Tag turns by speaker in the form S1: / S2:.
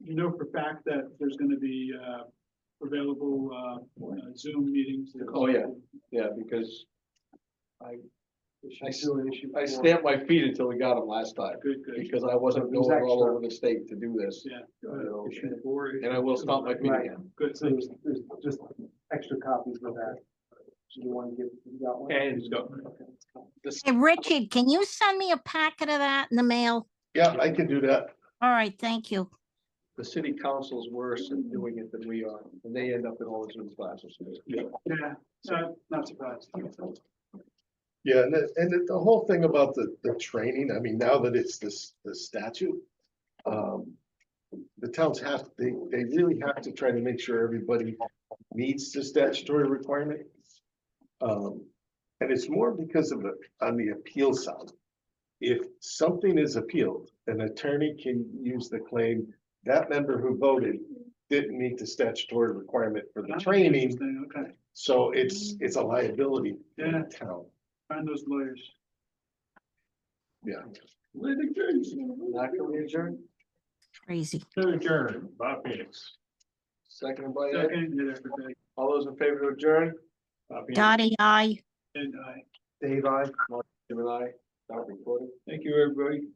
S1: you know for a fact that there's gonna be, uh, available, uh, uh, Zoom meetings.
S2: Oh, yeah. Yeah, because I, I s- I
S3: stand.
S2: stamped my feet until we got them last time,
S1: Good, good.
S2: because I wasn't
S3: It was
S2: going all
S3: extra.
S2: over the state to do this.
S1: Yeah.
S2: know,
S1: Issue four.
S2: And I will stomp my feet
S3: Right.
S2: again.
S1: Good, so
S3: There's, there's just extra copies of that. Do you want to give, you got one?
S2: And-
S3: Okay, let's go.
S2: This-
S4: Hey, Richard, can you send me a packet of that in the mail?
S5: Yeah, I can do that.
S4: All right, thank you.
S2: The city council's worse at doing it than we are, and they end up in all the Zoom classes.
S1: Yeah, so not surprised.
S5: Yeah, and the, and the- the whole thing about the, the training, I mean, now that it's this, the statute. Um, the towns have, they, they really have to try to make sure everybody meets the statutory requirement. Um, and it's more because of the, on the appeal side. If something is appealed, an attorney can use the claim, that member who voted didn't meet the statutory requirement for the training.
S1: Interesting, Okay,
S5: So it's, it's a liability in the town.
S1: find those lawyers.
S5: Yeah.
S2: Not gonna adjourn,
S4: Crazy.
S1: Bob Phoenix.
S2: second by Ed,
S1: Second, yeah, everybody,
S2: all those in favor to adjourn? Uh,
S4: Dottie, I.
S1: and I.
S3: Dave, I.
S2: Jim and I, stop recording. Thank you, everybody.